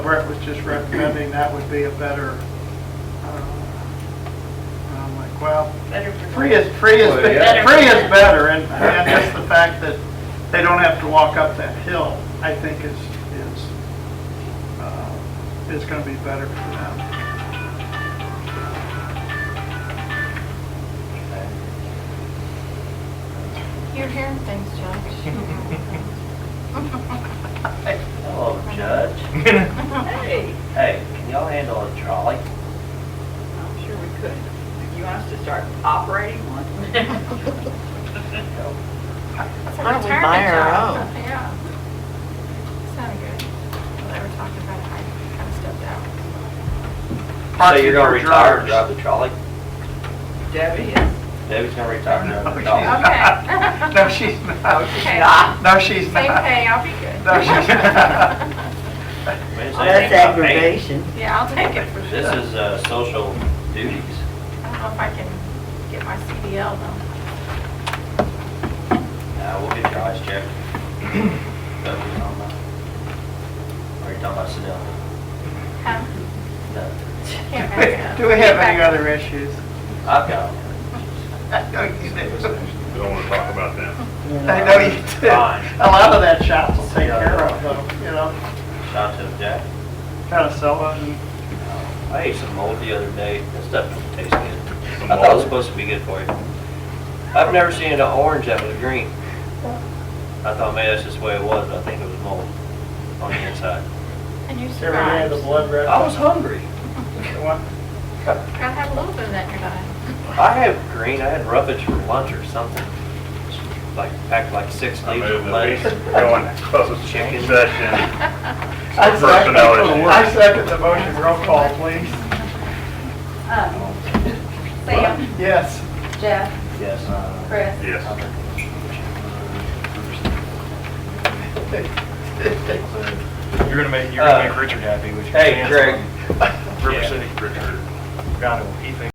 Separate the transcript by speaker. Speaker 1: Brett was just recommending, that would be a better, uh, and I'm like, well,
Speaker 2: Better for-
Speaker 1: free is, free is,
Speaker 3: Well, yeah.
Speaker 1: free is better, and, and just the fact that they don't have to walk up that hill, I think is, is, uh, is gonna be better for them.
Speaker 4: You're hearing things, Judge.
Speaker 5: Hello, Judge.
Speaker 2: Hey,
Speaker 5: Hey, can y'all handle a trolley?
Speaker 2: I'm sure we could. You want us to start operating one?
Speaker 4: Why don't we buy our own? Yeah. Sounded good. Well, They were talking about it, I kind of stepped out.
Speaker 5: So you're gonna retire and drive the trolley?
Speaker 2: Debbie is.
Speaker 5: Debbie's gonna retire and
Speaker 6: Oh,
Speaker 5: drive the
Speaker 1: No, she's
Speaker 5: trolley.
Speaker 1: not.
Speaker 4: Okay.
Speaker 1: No, she's not. No, she's
Speaker 4: Okay. Same
Speaker 1: not.
Speaker 4: pay, I'll be good.
Speaker 1: No, she's-
Speaker 5: We didn't say
Speaker 6: Oh, That's
Speaker 5: anything about pay.
Speaker 6: aggravation.
Speaker 4: Yeah, I'll take it for sure.
Speaker 5: This is, uh, social duties.
Speaker 4: I don't know if I can get my CDL though.
Speaker 5: Uh, we'll get your eyes checked. But we don't know. Are you talking about Sedell?
Speaker 4: Huh?
Speaker 5: No.
Speaker 4: Can't back up.
Speaker 1: Do we have any
Speaker 4: Back up.
Speaker 1: other issues?
Speaker 5: I've got
Speaker 1: I know you do.
Speaker 3: Don't want to talk about them.
Speaker 1: I know you do.
Speaker 5: Fine.
Speaker 1: A lot of that shop will take care of them, you know,
Speaker 5: Shout out to Jack.
Speaker 1: kind of sell them.
Speaker 5: I ate some mold the other day. That stuff doesn't taste good.
Speaker 3: Some
Speaker 5: I thought it
Speaker 3: mold?
Speaker 5: was supposed to be good for you. I've never seen an orange that was green. I thought maybe that's just the way it was, but I think it was mold on the inside.
Speaker 4: And you survived.
Speaker 1: Every day the blood red.
Speaker 5: I was hungry.
Speaker 1: What?
Speaker 4: Gotta have a little bit of that in your diet.
Speaker 5: I had green, I had roughage for lunch or something. Like, packed like six
Speaker 3: I
Speaker 5: leaves of
Speaker 3: move that we
Speaker 5: lettuce.
Speaker 3: go into closed
Speaker 5: Chicken.
Speaker 3: session.
Speaker 1: I second,
Speaker 3: Personnel issues.
Speaker 1: I second the motion, roll call, please.
Speaker 7: Um, Sam,
Speaker 1: Yes.
Speaker 7: Jeff,
Speaker 5: Yes.
Speaker 7: Chris,
Speaker 3: Yes.
Speaker 8: You're gonna make, you're gonna
Speaker 5: Uh,
Speaker 8: make Richard happy with your
Speaker 5: Hey,
Speaker 8: plans
Speaker 5: Greg.
Speaker 8: on River
Speaker 5: Yeah.
Speaker 8: City.
Speaker 3: Richard.
Speaker 8: God, he thinks